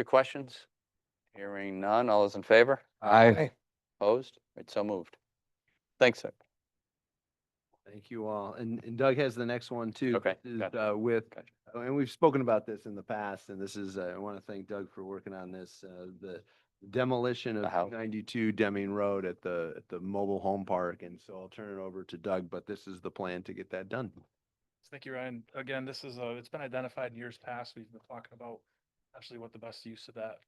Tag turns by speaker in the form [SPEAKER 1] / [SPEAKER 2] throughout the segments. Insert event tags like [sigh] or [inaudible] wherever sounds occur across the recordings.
[SPEAKER 1] Your questions? Hearing none. All those in favor?
[SPEAKER 2] Aye.
[SPEAKER 1] Opposed? It's so moved. Thanks, sir.
[SPEAKER 3] Thank you all. And and Doug has the next one too.
[SPEAKER 1] Okay,
[SPEAKER 3] This is,
[SPEAKER 1] gotcha,
[SPEAKER 3] uh, With,
[SPEAKER 1] gotcha.
[SPEAKER 3] oh, and we've spoken about this in the past, and this is, uh, I want to thank Doug for working on this, uh, the demolition
[SPEAKER 1] The
[SPEAKER 3] of
[SPEAKER 1] house.
[SPEAKER 3] ninety-two Deming Road at the, at the mobile home park. And so I'll turn it over to Doug, but this is the plan to get that done.
[SPEAKER 4] Thank you, Ryan. Again, this is, uh, it's been identified in years past. We've been talking about actually what the best use of that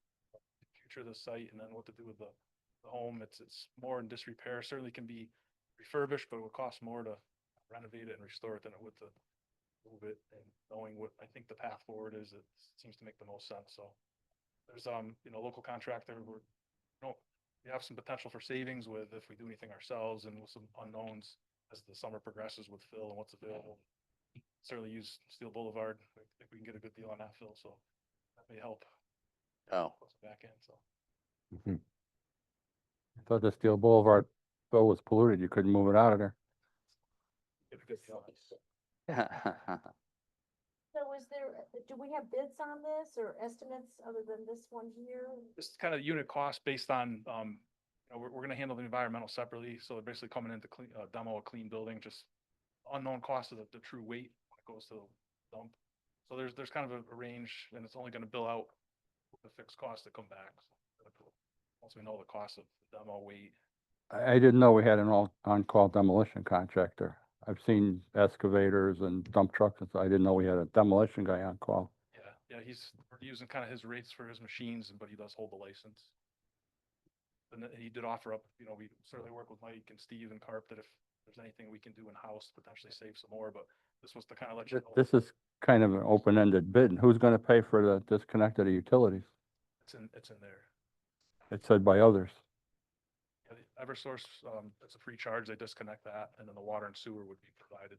[SPEAKER 4] future of the site and then what to do with the, the home. It's, it's more in disrepair. Certainly can be refurbished, but it would cost more to renovate it and restore it than it would to move it and knowing what, I think the path forward is, it seems to make the most sense. So there's, um, you know, local contractor, we're, you know, we have some potential for savings with if we do anything ourselves and with some unknowns as the summer progresses with Phil and what's available certainly use Steel Boulevard. I think we can get a good deal on that, Phil, so that may help
[SPEAKER 1] Oh,
[SPEAKER 4] close the back end, so.
[SPEAKER 2] Mhm. I Thought the Steel Boulevard, though, was polluted. You couldn't move it out of there.
[SPEAKER 4] get a good deal on it.
[SPEAKER 5] So is there, do we have bids on this or estimates other than this one here?
[SPEAKER 4] Just kind of unit cost based on, um, you know, we're, we're gonna handle the environmental separately, so they're basically coming in to clean, uh, demo a clean building, just unknown cost of the, the true weight when it goes to the dump. So there's, there's kind of a, a range, and it's only gonna bill out the fixed costs that come back. so, Once we know the cost of the demo weight,
[SPEAKER 2] I, I didn't know we had an all, on-call demolition contractor. I've seen excavators and dump trucks, and so I didn't know we had a demolition guy on call.
[SPEAKER 4] yeah, yeah, he's we're using kind of his rates for his machines, but he does hold the license. And then he did offer up, you know, we certainly work with Mike and Steve and Carp that if there's anything we can do in-house, to potentially save some more, but this was to kind of let you
[SPEAKER 2] Th-
[SPEAKER 4] know.
[SPEAKER 2] This is kind of an open-ended bid. and Who's gonna pay for the disconnect of the utilities?
[SPEAKER 4] It's in, it's in there.
[SPEAKER 2] It said by others.
[SPEAKER 4] Yeah, the Eversource, um, it's a free charge, they disconnect that, and then the water and sewer would be provided.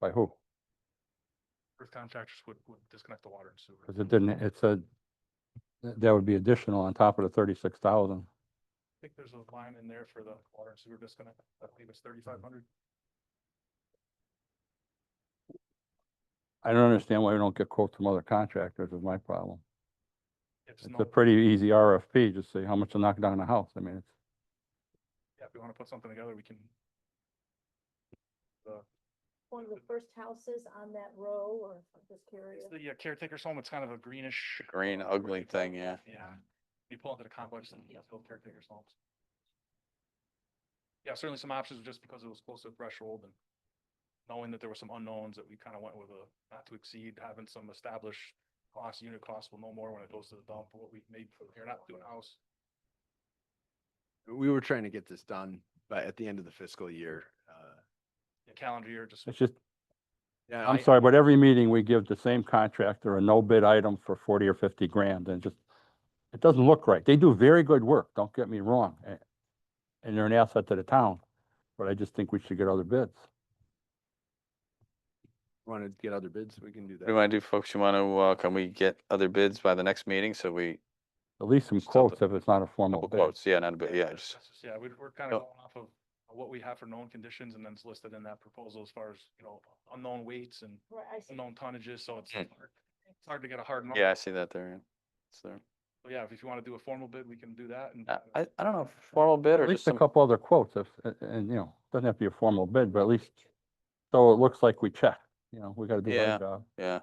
[SPEAKER 2] By who?
[SPEAKER 4] Earth contractors would, would disconnect the water and
[SPEAKER 2] Cause it
[SPEAKER 4] sewer.
[SPEAKER 2] didn't, it said th- that would be additional on top of the thirty-six thousand.
[SPEAKER 4] I think there's a line in there for the water and sewer disconnect, I believe it's thirty-five hundred.
[SPEAKER 2] I don't understand why we don't get quotes from other contractors is my problem.
[SPEAKER 4] It's
[SPEAKER 2] It's
[SPEAKER 4] no,
[SPEAKER 2] a pretty easy RFP, just say how much to knock down a house. I mean, it's,
[SPEAKER 4] yeah, if we want to put something together, we can. Uh,
[SPEAKER 5] One of the first houses on that row or I'm just curious?
[SPEAKER 4] It's the uh, caretaker's home. It's kind of a greenish.
[SPEAKER 1] [laughs] Green
[SPEAKER 4] uh,
[SPEAKER 1] ugly
[SPEAKER 4] brick
[SPEAKER 1] thing,
[SPEAKER 4] color.
[SPEAKER 1] yeah.
[SPEAKER 4] Yeah. You pull into the complex and you feel caretaker's homes. Yeah, certainly some options just because it was close to the threshold and knowing that there were some unknowns that we kind of went with a not to exceed, having some established cost, unit cost will know more when it goes to the dump, what we made for here, not doing a house.
[SPEAKER 3] We were trying to get this done by, at the end of the fiscal year. uh,
[SPEAKER 4] Yeah, Calendar year, just.
[SPEAKER 2] it's just,
[SPEAKER 3] yeah,
[SPEAKER 2] I'm
[SPEAKER 3] I-
[SPEAKER 2] sorry, but every meeting we give the same contractor a no bid item for forty or fifty grand and just, it doesn't look right. They do very good work, don't get me wrong. a- And they're an asset to the town, but I just think we should get other bids.
[SPEAKER 3] Want to get other bids? We can
[SPEAKER 1] What
[SPEAKER 3] do
[SPEAKER 1] do you
[SPEAKER 3] that.
[SPEAKER 1] want to do, folks? You want to, uh, can we get other bids by the next meeting? So we,
[SPEAKER 2] At least some
[SPEAKER 1] Just have to-
[SPEAKER 2] quotes if it's not a formal
[SPEAKER 1] couple
[SPEAKER 2] bid.
[SPEAKER 1] quotes, yeah, not a bit, yeah,
[SPEAKER 4] that's
[SPEAKER 1] just,
[SPEAKER 4] just- Yeah, we're, we're kind
[SPEAKER 1] No.
[SPEAKER 4] of going off of what we have for known conditions and then it's listed in that proposal as far as, you know, unknown weights and
[SPEAKER 5] Right, I see.
[SPEAKER 4] unknown tonnages, so it's
[SPEAKER 1] Mm.
[SPEAKER 4] hard- it's hard to get a hard number.
[SPEAKER 1] yeah, I see that there. yeah. It's there.
[SPEAKER 4] So yeah, if you want to do a formal bid, we can do that and.
[SPEAKER 1] Uh,
[SPEAKER 4] kinda-
[SPEAKER 1] I, I don't know, if formal bid or just
[SPEAKER 2] At least a
[SPEAKER 1] some,
[SPEAKER 2] couple other quotes if, a- and, you know, doesn't have to be a formal bid, but at least, so it looks like we checked, you know, we gotta do
[SPEAKER 1] Yeah.
[SPEAKER 2] our job.
[SPEAKER 1] yeah,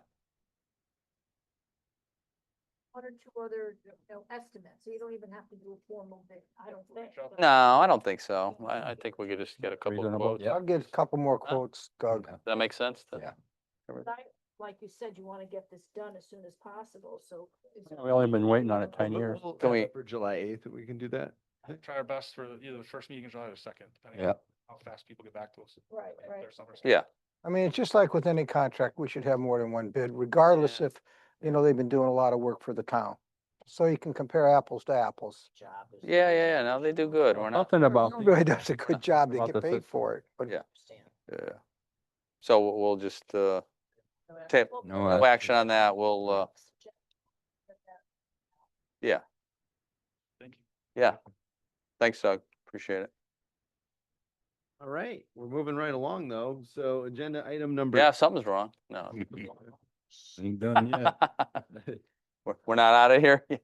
[SPEAKER 5] One or two other, you know, estimates. So you don't even have to do a formal bid, I don't think. but-
[SPEAKER 1] no, I don't think so. I, I think we could just get a couple of
[SPEAKER 2] Reasonable,
[SPEAKER 1] quotes.
[SPEAKER 2] yeah.
[SPEAKER 1] Does
[SPEAKER 6] I'll get a couple more
[SPEAKER 1] Uh,
[SPEAKER 6] quotes, Doug.
[SPEAKER 1] that make sense? to-
[SPEAKER 6] Yeah.
[SPEAKER 1] cover-
[SPEAKER 5] But I, like you said, you want to get this done as soon as possible, so. is there-
[SPEAKER 2] We've only been waiting on it
[SPEAKER 5] Well,
[SPEAKER 2] ten
[SPEAKER 5] but-
[SPEAKER 2] years.
[SPEAKER 3] We'll
[SPEAKER 1] Can
[SPEAKER 3] have
[SPEAKER 1] we-
[SPEAKER 3] it For July eighth, we can do that.
[SPEAKER 4] Try our best for either the first meeting in July or the second, depending
[SPEAKER 6] Yeah.
[SPEAKER 4] on how fast people get back to us.
[SPEAKER 5] Right,
[SPEAKER 4] if
[SPEAKER 5] right.
[SPEAKER 4] there's summer stuff.
[SPEAKER 1] Yeah,
[SPEAKER 6] I mean, it's just like with any contract, we should have more than one bid, regardless if, you know, they've been doing a lot of work for the town. So you can compare apples to apples.
[SPEAKER 5] Job is-
[SPEAKER 1] yeah, yeah, yeah, no, they do good. We're not,
[SPEAKER 2] Nothing about,
[SPEAKER 6] Everyone Really [laughs] does a
[SPEAKER 2] Yeah,
[SPEAKER 6] good job, they
[SPEAKER 2] about the
[SPEAKER 6] get paid
[SPEAKER 2] sys-
[SPEAKER 6] for it, but
[SPEAKER 1] Yeah.
[SPEAKER 5] Understand.
[SPEAKER 1] yeah. So we'll we'll just, uh, table,
[SPEAKER 5] Well,
[SPEAKER 2] No,
[SPEAKER 1] no action on that. We'll, uh,
[SPEAKER 5] suggest that
[SPEAKER 4] Thank you.
[SPEAKER 1] yeah. Thanks, Doug. Appreciate it.
[SPEAKER 3] All right, we're moving right along though. So agenda item number.
[SPEAKER 1] Yeah, something's wrong. No.
[SPEAKER 2] Ain't done yet.
[SPEAKER 1] [laughs]
[SPEAKER 2] [laughs]
[SPEAKER 1] We're, we're not out of here?